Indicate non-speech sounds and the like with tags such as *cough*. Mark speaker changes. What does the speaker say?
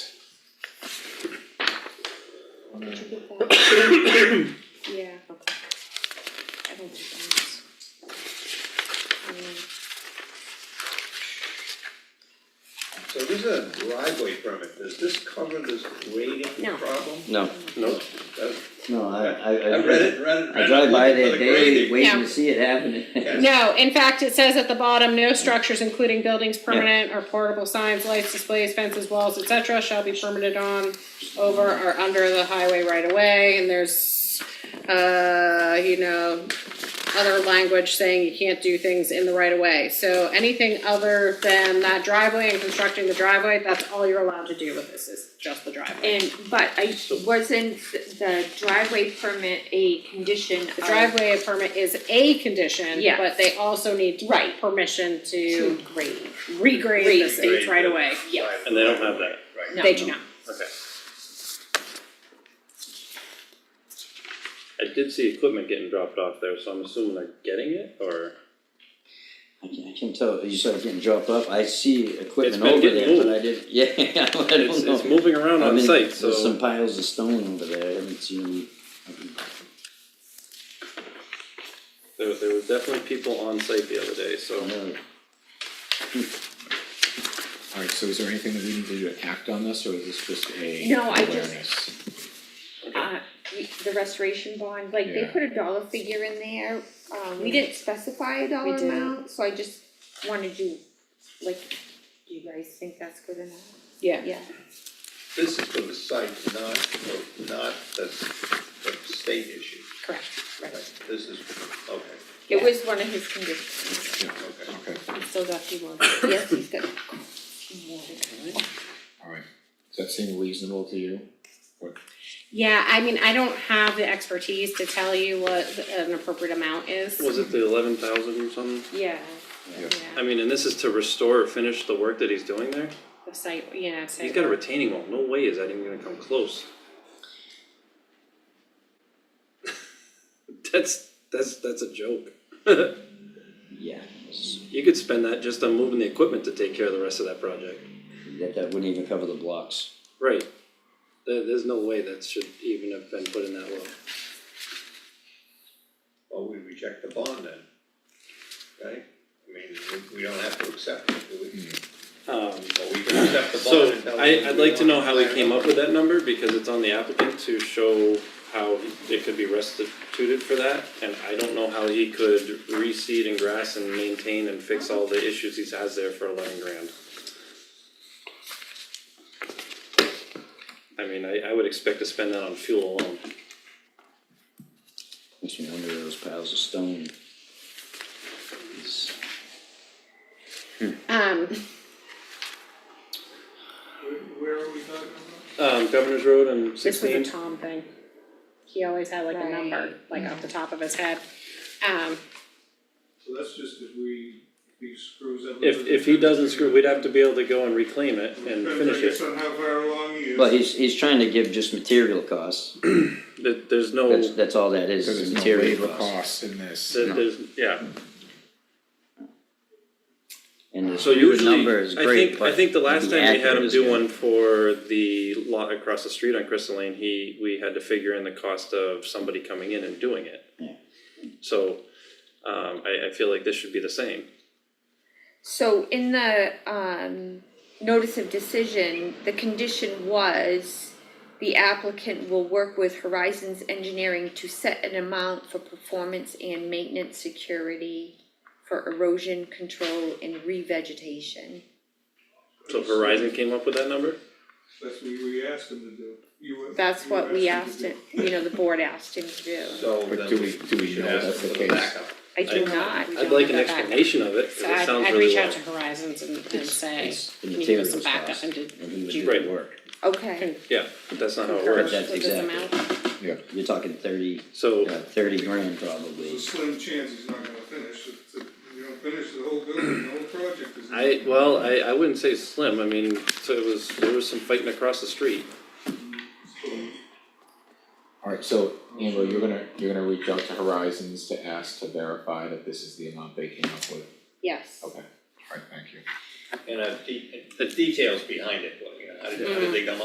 Speaker 1: Did you get that? Yeah. Okay. I don't think that is. Um,
Speaker 2: So this is a driveway permit, does this cover this grading
Speaker 1: No.
Speaker 2: problem?
Speaker 3: No,
Speaker 2: No. Does-
Speaker 3: no, I, I.
Speaker 2: I read it, read it.
Speaker 3: I drive by there daily,
Speaker 1: No.
Speaker 3: waiting to see it
Speaker 4: *laughs*
Speaker 3: happening.
Speaker 1: No, in fact, it says at the bottom, no structures including buildings, permanent or portable signs, lights, displays, fences, walls, et cetera, shall be permitted on, over or under the highway right away. and there's, uh, you know, other language saying you can't do things in the right of way. So anything other than that driveway and constructing the driveway, that's all you're allowed to do with this, is just the driveway.
Speaker 5: And, but I, wasn't the driveway permit a condition of?
Speaker 1: The driveway permit is a condition,
Speaker 5: Yeah.
Speaker 1: but they also need
Speaker 5: Right.
Speaker 1: permission
Speaker 5: To
Speaker 1: to
Speaker 5: grade,
Speaker 1: regrade the
Speaker 5: Grade.
Speaker 1: state's right away.
Speaker 5: yes.
Speaker 4: And they don't have that.
Speaker 5: No.
Speaker 1: They do not.
Speaker 4: Okay. I did see equipment getting dropped off there, so I'm assuming they're getting it, or?
Speaker 3: I can, I can tell, you started getting dropped off, I see equipment
Speaker 4: been
Speaker 3: over
Speaker 4: getting
Speaker 3: there, but
Speaker 4: moved.
Speaker 3: I didn't, *laughs* yeah, I don't know.
Speaker 4: It's, it's moving around
Speaker 3: I
Speaker 4: on
Speaker 3: mean,
Speaker 4: site, so.
Speaker 3: There's some piles of stone over there, I haven't seen,
Speaker 4: There, there were definitely people on site the other day, so.
Speaker 3: uh,
Speaker 6: Alright, so is there anything that we need to do to act on this, or is this just a
Speaker 5: No, I just-
Speaker 6: awareness?
Speaker 5: Uh, we- the restoration bond, like they
Speaker 6: Yeah.
Speaker 5: put a dollar figure in there, um, we didn't specify a dollar
Speaker 1: We didn't.
Speaker 5: amount, so I just wanted you, like, do you guys think that's good enough?
Speaker 1: Yeah.
Speaker 5: Yeah,
Speaker 2: This is for the site, not, for- not the, the state issue,
Speaker 1: Correct,
Speaker 2: right?
Speaker 1: right.
Speaker 2: This is, okay,
Speaker 5: it was one of his conditions,
Speaker 2: okay.
Speaker 6: Okay,
Speaker 1: We still got two more. *coughs*
Speaker 5: yes, he's got more to come.
Speaker 6: alright, does that seem reasonable to you?
Speaker 1: Yeah, I mean, I don't have the expertise to tell you what an appropriate amount is.
Speaker 4: Was it the eleven thousand or something?
Speaker 1: Yeah,
Speaker 6: Yeah.
Speaker 4: I mean, and this is to restore or finish the work that he's doing there?
Speaker 1: the site, yeah, site.
Speaker 4: He's got a retaining wall, no way is that even gonna come close. *laughs* That's, that's, that's a joke. *laughs*
Speaker 3: yeah, it's-
Speaker 4: You could spend that just on moving the equipment to take care of the rest of that project.
Speaker 3: that, that wouldn't even cover the blocks.
Speaker 4: Right. There, there's no way that should even have been put in that low.
Speaker 2: Well, we reject the bond then, right? I mean, we, we don't have to accept it, do
Speaker 6: Hmm.
Speaker 2: we?
Speaker 4: Um,
Speaker 2: Well, we can accept the bond
Speaker 4: so
Speaker 2: and tell them.
Speaker 4: I, I'd like to know how we
Speaker 2: we
Speaker 4: came up with that number because it's on the applicant to show how it could be restituted for that. And I don't know how he could reseed and grass and maintain and fix all the issues he has there for eleven grand. I mean, I, I would expect to spend that on fuel alone.
Speaker 3: Makes me wonder those piles of stone. It's-
Speaker 1: Um,
Speaker 4: Um, Governor's Road and
Speaker 1: this was
Speaker 4: sixteen.
Speaker 1: a Tom thing. He always had like a number, like off the top of his head. Um,
Speaker 7: So that's just if we, if he screws up.
Speaker 4: If, if he doesn't screw, we'd have to be able to go and reclaim it and finish
Speaker 7: Depends,
Speaker 4: it.
Speaker 7: I guess, on how far along he is.
Speaker 3: Well, he's, he's trying to give just material costs,
Speaker 4: There, there's no,
Speaker 3: that's, that's all that is,
Speaker 6: Cause
Speaker 3: is
Speaker 6: there's no
Speaker 3: material
Speaker 6: labor
Speaker 3: costs.
Speaker 6: costs in this.
Speaker 4: there- there's, yeah,
Speaker 3: And his
Speaker 4: so
Speaker 3: new
Speaker 4: usually,
Speaker 3: number is
Speaker 4: I
Speaker 3: great,
Speaker 4: think,
Speaker 3: but.
Speaker 4: I think the last
Speaker 3: the
Speaker 4: time we had
Speaker 3: accurate
Speaker 4: him
Speaker 3: is
Speaker 4: do
Speaker 3: good.
Speaker 4: one for the lot across the street on Crystal Lane, he, we had to figure in the cost of somebody coming in and doing it.
Speaker 3: Yeah.
Speaker 4: So, um, I, I feel like this should be the same.
Speaker 5: So in the um notice of decision, the condition was the applicant will work with Horizons Engineering to set an amount for performance and maintenance security for erosion control and revegetation.
Speaker 4: So Verizon came up with that number?
Speaker 7: That's what we asked him to do. You-
Speaker 5: That's
Speaker 7: you
Speaker 5: what we
Speaker 7: him to
Speaker 5: asked
Speaker 7: do.
Speaker 5: it, you know, the board asked him to do.
Speaker 2: So
Speaker 6: But
Speaker 2: then
Speaker 6: do
Speaker 2: we
Speaker 6: we- do we
Speaker 2: should
Speaker 6: know
Speaker 2: ask
Speaker 6: that's
Speaker 2: them
Speaker 6: the
Speaker 2: for the
Speaker 6: case?
Speaker 2: backup.
Speaker 5: I do
Speaker 4: I-
Speaker 5: not, we
Speaker 4: I'd
Speaker 5: don't
Speaker 4: like
Speaker 5: have
Speaker 4: an
Speaker 5: that back.
Speaker 4: explanation of it, cause
Speaker 1: so
Speaker 4: it
Speaker 1: I'd,
Speaker 4: sounds
Speaker 1: I'd
Speaker 4: really
Speaker 1: reach
Speaker 4: low.
Speaker 1: out to Horizons and, and
Speaker 3: It's-
Speaker 1: say,
Speaker 3: it's the
Speaker 1: can you give us
Speaker 3: materials
Speaker 1: some backup
Speaker 3: cost,
Speaker 1: and do,
Speaker 3: And he would
Speaker 1: do
Speaker 3: do
Speaker 4: Right.
Speaker 3: the work,
Speaker 5: Okay,
Speaker 4: Yeah, but that's not how it
Speaker 1: concur
Speaker 3: Correct.
Speaker 1: with
Speaker 4: works.
Speaker 3: That's
Speaker 1: this
Speaker 3: exactly.
Speaker 1: amount?
Speaker 6: Yeah,
Speaker 3: you're talking thirty,
Speaker 4: So,
Speaker 3: uh, thirty grand
Speaker 7: It's
Speaker 3: probably.
Speaker 7: a slim chance he's not gonna finish, It's a- you don't finish the whole building, the whole project is.
Speaker 4: I, well, I, I wouldn't say slim, I mean, so it was, there was some fighting across the street.
Speaker 6: alright, so Amber, you're gonna, you're gonna reach out to Horizons to ask to verify that this is the amount they came up with,
Speaker 5: yes.
Speaker 6: okay, alright, thank you.
Speaker 2: And uh, de- the details behind it, what, you know, how did, how did they come